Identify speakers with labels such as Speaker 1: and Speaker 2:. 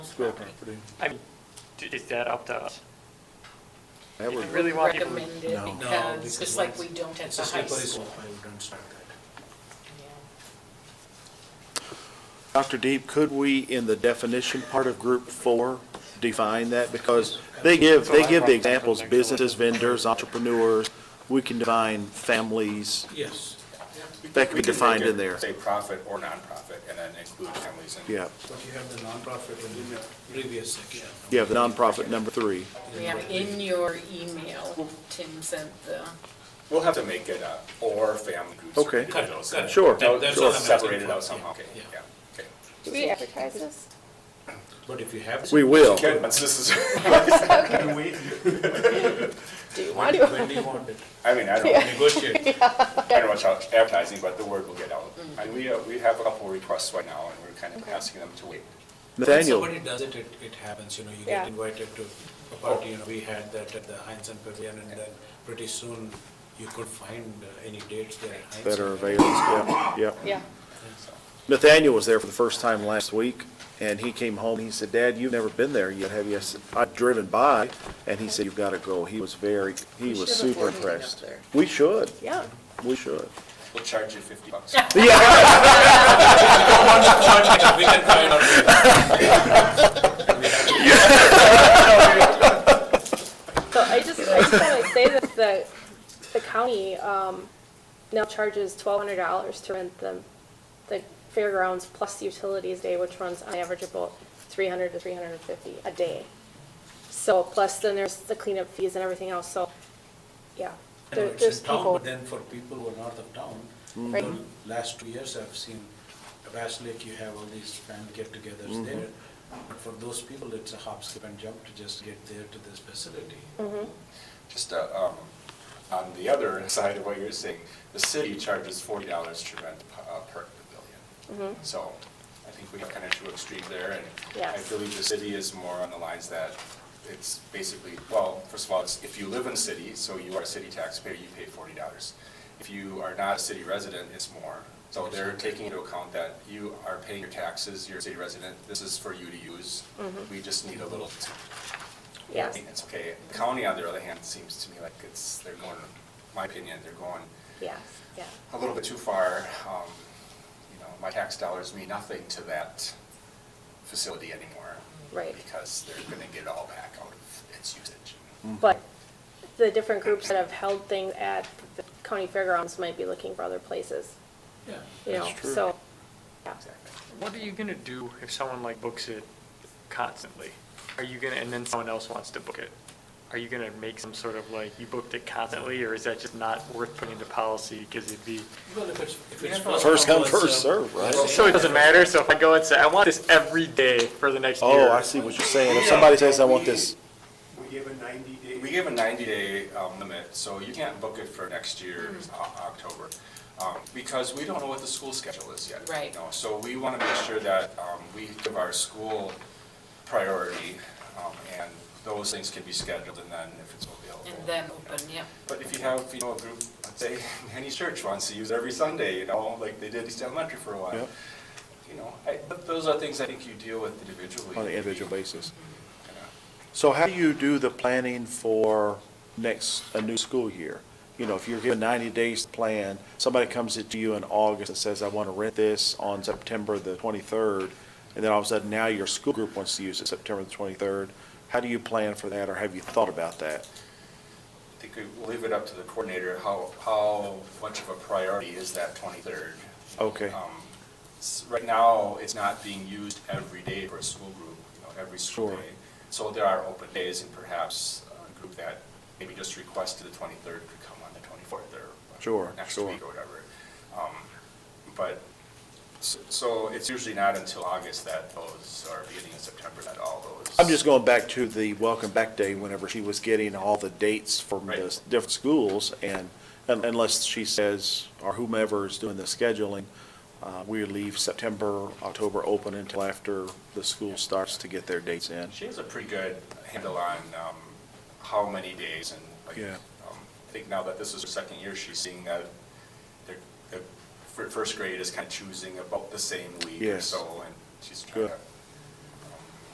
Speaker 1: school property.
Speaker 2: I mean, d- is that up to us?
Speaker 3: That
Speaker 2: If
Speaker 3: would-
Speaker 2: you really want people, to-
Speaker 4: recommended
Speaker 5: No.
Speaker 6: No,
Speaker 4: because, just like we
Speaker 6: because
Speaker 4: don't at
Speaker 6: It's
Speaker 4: the
Speaker 6: a
Speaker 4: high
Speaker 6: slippery
Speaker 4: school.
Speaker 6: slope, I would don't start that.
Speaker 4: Yeah.
Speaker 3: Dr. Deep, could we, in the definition part of group four, define that? Because they give, they give the examples, businesses, vendors, entrepreneurs, we can define families,
Speaker 6: Yes.
Speaker 3: that could
Speaker 7: We
Speaker 3: be
Speaker 7: can
Speaker 3: defined
Speaker 7: make it
Speaker 3: in there.
Speaker 7: Say profit or nonprofit, and then include families in.
Speaker 3: Yeah,
Speaker 6: But you have the nonprofit in the previous section.
Speaker 3: you have the nonprofit number three.
Speaker 4: Yeah, in your email, Tim sent the,
Speaker 7: We'll have to make it a or family groups. or
Speaker 3: Okay.
Speaker 7: individuals.
Speaker 6: Got it, got it.
Speaker 3: Sure,
Speaker 7: That-
Speaker 6: That's
Speaker 7: We'll
Speaker 6: what I'm asking
Speaker 7: separate it
Speaker 6: for.
Speaker 7: out somehow, okay,
Speaker 6: Yeah.
Speaker 7: yeah, okay.
Speaker 8: Do we advertise this?
Speaker 6: But if you have.
Speaker 3: We will.
Speaker 7: Okay, once this is,
Speaker 8: Do you
Speaker 6: When
Speaker 8: want to?
Speaker 6: when do you want it?
Speaker 7: I mean, I don't, I
Speaker 6: Negotiate.
Speaker 7: don't know much about advertising, but the word will get out. And we, uh, we have a couple of requests right now, and we're kind of asking them to wait.
Speaker 6: When
Speaker 3: Nathaniel,
Speaker 6: somebody does it, it, it happens, you know, you get
Speaker 8: Yeah.
Speaker 6: invited to a party, you know, we had that at the Heinz and Pavilion, and then pretty soon you could find uh, any dates there at Heinz.
Speaker 3: that are available, yeah, yeah.
Speaker 8: Yeah.
Speaker 7: so.
Speaker 3: Nathaniel was there for the first time last week, and he came home, and he said, Dad, you've never been there yet, have you? I said, I've driven by, and he said, you've gotta go. He was very, he
Speaker 8: We should
Speaker 3: was
Speaker 8: have
Speaker 3: super
Speaker 8: boarded it up
Speaker 3: impressed.
Speaker 8: there.
Speaker 3: We should,
Speaker 8: Yeah.
Speaker 3: we should.
Speaker 7: We'll charge you fifty bucks.
Speaker 3: Yeah,
Speaker 6: We can find out.
Speaker 8: So I just, I just want to say that the, the county um, now charges twelve hundred dollars to rent the, the fairgrounds plus the utilities day, which runs on average about three hundred to three hundred and fifty a day. So plus then there's the cleanup fees and everything else, so,
Speaker 6: You
Speaker 8: yeah.
Speaker 6: know,
Speaker 8: There-
Speaker 6: It's
Speaker 8: There's
Speaker 6: in town, but
Speaker 8: people, Mm-hmm.
Speaker 6: then for people who are north of town,
Speaker 8: Right.
Speaker 6: the last two years I've seen, Bass Lake, you have all these family
Speaker 8: Mm-hmm.
Speaker 6: get-togethers there. But for those people, it's a hop, skip and jump to just get there to this facility.
Speaker 8: Mm.
Speaker 7: Just, uh, um, on the other side of what you're saying, the city charges forty dollars to rent a park pavilion. So I think we have kind of two extremes there, and I
Speaker 8: Yes.
Speaker 7: believe the city is more on the lines that it's basically, well, first of all, it's, if you live in city, so you are a city taxpayer, you pay forty dollars. If you are not a city resident, it's more. So they're taking into account that you are paying your taxes, you're a city resident, this is for you to use. We just need a little I
Speaker 8: yes,
Speaker 7: think It's okay. The County, on the other hand, seems to me like it's, they're going, my opinion, they're going
Speaker 8: yes, yeah.
Speaker 7: a little bit too far. Um, You know, my tax dollars mean nothing to that facility anymore.
Speaker 8: Right.
Speaker 7: Because they're gonna get it all back out of its usage.
Speaker 3: Mm-hmm.
Speaker 8: But the different groups that have held things at the county fairgrounds might be looking for other places,
Speaker 6: Yeah.
Speaker 8: you know,
Speaker 3: That's true.
Speaker 8: so, yeah.
Speaker 7: Exactly.
Speaker 2: what are you gonna do if someone like books it constantly? Are you gonna, and then someone else wants to book it? Are you gonna make some sort of like, you booked it constantly, or is that just not worth putting into policy because it'd be?
Speaker 6: Well, if it's, if it's.
Speaker 3: First come,
Speaker 6: first
Speaker 3: first serve, right?
Speaker 2: So it doesn't matter, so if I go and say, I want this every day for the next year.
Speaker 3: Oh, I see what you're saying. If somebody says, I want this,
Speaker 5: We give a ninety day.
Speaker 7: We give a ninety-day limit, so you can't book it for next year,
Speaker 4: Mm-hmm.
Speaker 7: O- October, um, because we don't know what the school schedule is yet.
Speaker 4: Right.
Speaker 7: you know. So we want to make sure that um, we give our school priority, um, and those things can be scheduled, and then if it's available.
Speaker 4: and then open, yeah.
Speaker 7: But if you have, you know, a group, let's say, any church wants to use it every Sunday, you know, like they did East Elementary for a
Speaker 3: Yeah.
Speaker 7: while. You know, I- but those are things I think you deal with individually.
Speaker 3: on an individual basis.
Speaker 7: You know.
Speaker 3: So how do you do the planning for next, a new school year? You know, if you're given ninety days to plan, somebody comes to you in August and says, I want to rent this on September the twenty-third, and then all of a sudden now your school group wants to use it September the twenty-third, how do you plan for that, or have you thought about that?
Speaker 7: I think we leave it up to the coordinator, how, how much of a priority is that 23rd?
Speaker 3: Okay,
Speaker 7: Um, s- Right now, it's not being used every day for a school group, you know, every school
Speaker 3: Sure.
Speaker 7: day. So there are open days, and perhaps a group that maybe just requested the 23rd could come on the 24th or
Speaker 3: Sure,
Speaker 7: next
Speaker 3: sure.
Speaker 7: week or whatever. Um, But, s- so it's usually not until August that those, or beginning of September that all those.
Speaker 3: I'm just going back to the Welcome Back Day, whenever she was getting all the dates from the
Speaker 7: Right.
Speaker 3: s- different schools, and un- unless she says, or whomever is doing the scheduling, uh, we leave September, October open until after the school starts to get their dates in.
Speaker 7: She has a pretty good handle on um, how many days and like,
Speaker 3: Yeah.
Speaker 7: um, I think now that this is her second year, she's seeing that their, the fir- first grade is kind of choosing about the same week or
Speaker 3: Yes.
Speaker 7: so, and she's trying
Speaker 3: Good.
Speaker 7: to